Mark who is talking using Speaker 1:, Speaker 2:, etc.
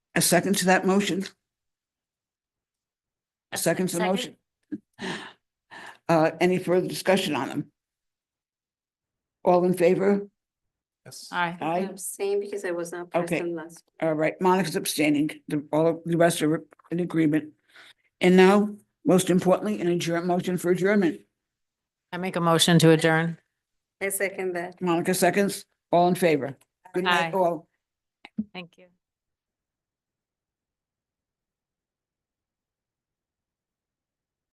Speaker 1: A second to that motion? A second to the
Speaker 2: Second.
Speaker 1: motion? Uh, any further discussion on them? All in favor?
Speaker 3: Yes.
Speaker 2: Aye.
Speaker 1: Aye.
Speaker 4: Abstain because I was not
Speaker 1: Oh. Okay.
Speaker 4: present last.
Speaker 1: All right, Monica's abstaining, the, all, the rest are in agreement. And now, most importantly, an adjourn, motion for adjournment.
Speaker 2: I make a motion to adjourn.
Speaker 4: I second that.
Speaker 1: Monica seconds, all in favor? Good night,
Speaker 2: Aye.
Speaker 1: all.
Speaker 2: Thank you.